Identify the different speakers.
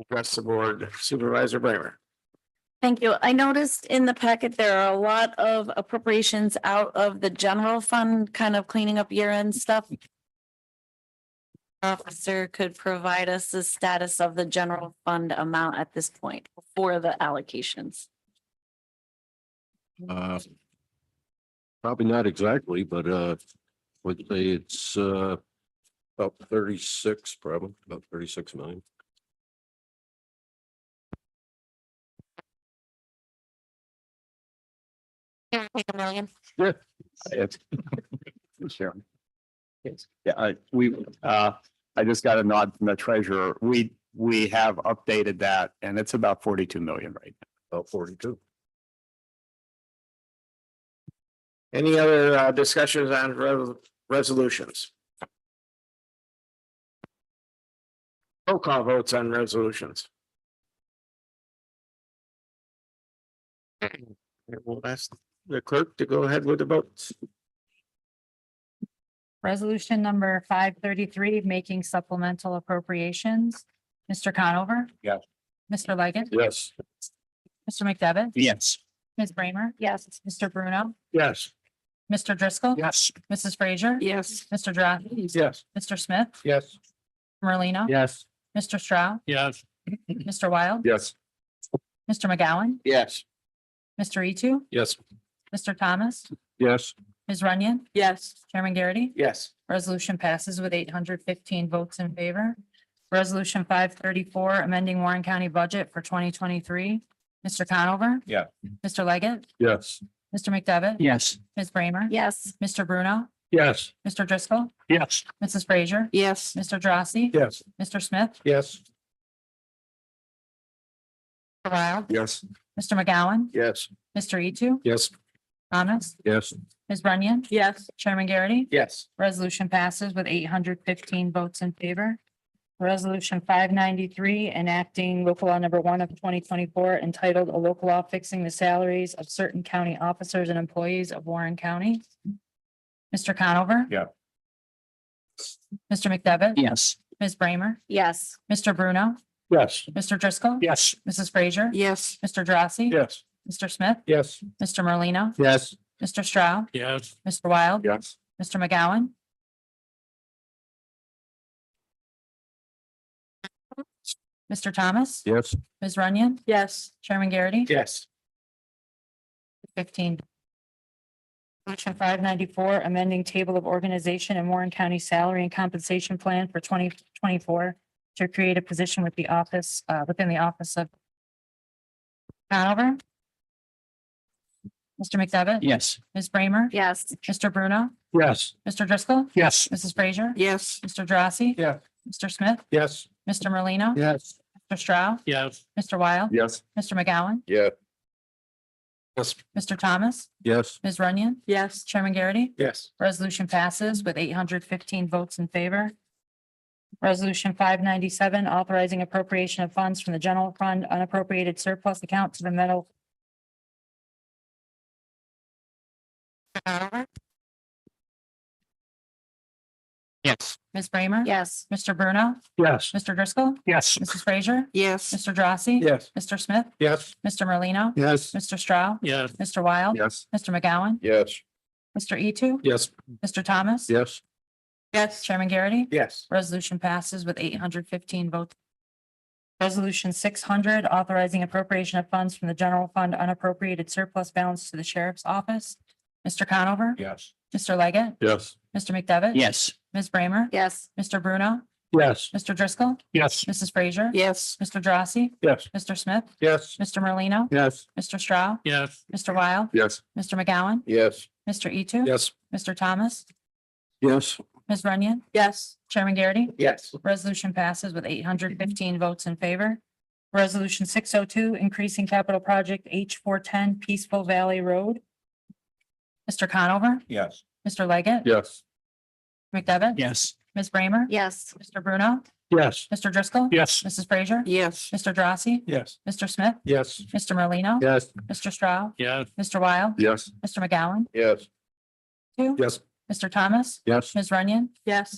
Speaker 1: address the board Supervisor Bramer.
Speaker 2: Thank you. I noticed in the packet, there are a lot of appropriations out of the general fund, kind of cleaning up year end stuff. Officer could provide us the status of the general fund amount at this point for the allocations.
Speaker 3: Uh, Probably not exactly, but uh, would say it's uh, about thirty-six, probably about thirty-six million.
Speaker 2: A million.
Speaker 4: It's. Sharon. Yes, yeah, I, we, uh, I just got a nod from the treasurer. We, we have updated that and it's about forty-two million right now.
Speaker 3: About forty-two.
Speaker 1: Any other uh, discussions on re- resolutions? Roll call votes on resolutions. We'll ask the clerk to go ahead with the votes.
Speaker 5: Resolution number five thirty-three, making supplemental appropriations. Mr. Conover?
Speaker 4: Yes.
Speaker 5: Mr. Leggett,
Speaker 3: Yes.
Speaker 5: Mr. McDevitt,
Speaker 4: Yes.
Speaker 5: Ms. Bramer,
Speaker 2: Yes.
Speaker 5: Mr. Bruno,
Speaker 1: Yes.
Speaker 5: Mr. Driscoll,
Speaker 4: Yes.
Speaker 5: Mrs. Frazier,
Speaker 2: Yes.
Speaker 5: Mr. Drossy,
Speaker 1: Yes.
Speaker 5: Mr. Smith,
Speaker 1: Yes.
Speaker 5: Merlino,
Speaker 4: Yes.
Speaker 5: Mr. Straugh,
Speaker 4: Yes.
Speaker 5: Mr. Wild,
Speaker 3: Yes.
Speaker 5: Mr. McGowan,
Speaker 1: Yes.
Speaker 5: Mr. Etu,
Speaker 3: Yes.
Speaker 5: Mr. Thomas,
Speaker 3: Yes.
Speaker 5: Ms. Runyon,
Speaker 2: Yes.
Speaker 5: Chairman Garrity.
Speaker 1: Yes.
Speaker 5: Resolution passes with eight hundred fifteen votes in favor. Resolution five thirty-four, amending Warren County budget for twenty twenty-three. Mr. Conover?
Speaker 4: Yeah.
Speaker 5: Mr. Leggett,
Speaker 3: Yes.
Speaker 5: Mr. McDevitt?
Speaker 4: Yes.
Speaker 5: Ms. Bramer?
Speaker 2: Yes.
Speaker 5: Mr. Bruno?
Speaker 3: Yes.
Speaker 5: Mr. Driscoll?
Speaker 4: Yes.
Speaker 5: Mrs. Frazier?
Speaker 2: Yes.
Speaker 5: Mr. Drossy?
Speaker 3: Yes.
Speaker 5: Mr. Smith?
Speaker 3: Yes.
Speaker 5: Mr. Wild?
Speaker 3: Yes.
Speaker 5: Mr. McGowan?
Speaker 3: Yes.
Speaker 5: Mr. Etu,
Speaker 3: Yes.
Speaker 5: Thomas?
Speaker 3: Yes.
Speaker 5: Ms. Runyon?
Speaker 2: Yes.
Speaker 5: Chairman Garrity?
Speaker 1: Yes.
Speaker 5: Resolution passes with eight hundred fifteen votes in favor. Resolution five ninety-three enacting local law number one of twenty twenty-four entitled a local law fixing the salaries of certain county officers and employees of Warren County. Mr. Conover?
Speaker 4: Yeah.
Speaker 5: Mr. McDevitt?
Speaker 4: Yes.
Speaker 5: Ms. Bramer?
Speaker 2: Yes.
Speaker 5: Mr. Bruno?
Speaker 3: Yes.
Speaker 5: Mr. Driscoll?
Speaker 4: Yes.
Speaker 5: Mrs. Frazier?
Speaker 2: Yes.
Speaker 5: Mr. Drossy?
Speaker 3: Yes.
Speaker 5: Mr. Smith?
Speaker 3: Yes.
Speaker 5: Mr. Merlino?
Speaker 3: Yes.
Speaker 5: Mr. Straugh?
Speaker 4: Yes.
Speaker 5: Mr. Wild?
Speaker 3: Yes.
Speaker 5: Mr. McGowan? Mr. Thomas?
Speaker 3: Yes.
Speaker 5: Ms. Runyon?
Speaker 2: Yes.
Speaker 5: Chairman Garrity?
Speaker 1: Yes.
Speaker 5: Fifteen. Section five ninety-four, amending table of organization and Warren County Salary and Compensation Plan for twenty twenty-four to create a position with the office, uh, within the office of Conover? Mr. McDevitt?
Speaker 4: Yes.
Speaker 5: Ms. Bramer?
Speaker 2: Yes.
Speaker 5: Mr. Bruno?
Speaker 3: Yes.
Speaker 5: Mr. Driscoll?
Speaker 4: Yes.
Speaker 5: Mrs. Frazier?
Speaker 2: Yes.
Speaker 5: Mr. Drossy?
Speaker 3: Yeah.
Speaker 5: Mr. Smith?
Speaker 3: Yes.
Speaker 5: Mr. Merlino?
Speaker 3: Yes.
Speaker 5: Mr. Stroud?
Speaker 4: Yes.
Speaker 5: Mr. Wild?
Speaker 3: Yes.
Speaker 5: Mr. McGowan?
Speaker 3: Yeah.
Speaker 5: Mr. Thomas?
Speaker 3: Yes.
Speaker 5: Ms. Runyon?
Speaker 2: Yes.
Speaker 5: Chairman Garrity?
Speaker 1: Yes.
Speaker 5: Resolution passes with eight hundred fifteen votes in favor. Resolution five ninety-seven, authorizing appropriation of funds from the general fund unappropriated surplus account to the metal.
Speaker 4: Yes.
Speaker 5: Ms. Bramer?
Speaker 2: Yes.
Speaker 5: Mr. Bruno?
Speaker 3: Yes.
Speaker 5: Mr. Driscoll?
Speaker 4: Yes.
Speaker 5: Mrs. Frazier?
Speaker 2: Yes.
Speaker 5: Mr. Drossy?
Speaker 3: Yes.
Speaker 5: Mr. Smith?
Speaker 3: Yes.
Speaker 5: Mr. Merlino?
Speaker 3: Yes.
Speaker 5: Mr. Straugh?
Speaker 4: Yes.
Speaker 5: Mr. Wild?
Speaker 3: Yes.
Speaker 5: Mr. McGowan?
Speaker 3: Yes.
Speaker 5: Mr. E two?
Speaker 3: Yes.
Speaker 5: Mr. Thomas?
Speaker 3: Yes.
Speaker 2: Yes.
Speaker 5: Chairman Garrity?
Speaker 1: Yes.
Speaker 5: Resolution passes with eight hundred fifteen votes. Resolution six hundred, authorizing appropriation of funds from the general fund unappropriated surplus balance to the sheriff's office. Mr. Conover?
Speaker 3: Yes.
Speaker 5: Mr. Leggett?
Speaker 3: Yes.
Speaker 5: Mr. McDevitt?
Speaker 4: Yes.
Speaker 5: Ms. Bramer?
Speaker 2: Yes.
Speaker 5: Mr. Bruno?
Speaker 3: Yes.
Speaker 5: Mr. Driscoll?
Speaker 4: Yes.
Speaker 5: Mrs. Frazier?
Speaker 2: Yes.
Speaker 5: Mr. Drossy?
Speaker 3: Yes.
Speaker 5: Mr. Smith?
Speaker 3: Yes.
Speaker 5: Mr. Merlino?
Speaker 3: Yes.
Speaker 5: Mr. Straugh?
Speaker 4: Yes.
Speaker 5: Mr. Wild?
Speaker 3: Yes.
Speaker 5: Mr. McGowan?
Speaker 3: Yes.
Speaker 5: Mr. E two?
Speaker 3: Yes.
Speaker 5: Mr. Thomas?
Speaker 3: Yes.
Speaker 5: Ms. Runyon?
Speaker 2: Yes.
Speaker 5: Chairman Garrity?
Speaker 1: Yes.
Speaker 5: Resolution passes with eight hundred fifteen votes in favor. Resolution six oh two, increasing capital project H four ten Peaceful Valley Road. Mr. Conover,
Speaker 3: Yes.
Speaker 5: Mr. Leggett.
Speaker 3: Yes.
Speaker 5: McDevitt.
Speaker 4: Yes.
Speaker 5: Ms. Bramer.
Speaker 2: Yes.
Speaker 5: Mr. Bruno,
Speaker 3: Yes.
Speaker 5: Mr. Driscoll.
Speaker 4: Yes.
Speaker 5: Mrs. Frazier.
Speaker 2: Yes.
Speaker 5: Mr. Drossy,
Speaker 3: Yes.
Speaker 5: Mr. Smith,
Speaker 3: Yes.
Speaker 5: Mr. Merlino,
Speaker 3: Yes.
Speaker 5: Mr. Straugh,
Speaker 4: Yes.
Speaker 5: Mr. Wild,
Speaker 3: Yes.
Speaker 5: Mr. McGowan,
Speaker 3: Yes.
Speaker 5: two,
Speaker 3: Yes.
Speaker 5: Mr. Thomas,
Speaker 3: Yes.
Speaker 5: Ms. Runyon,
Speaker 2: Yes.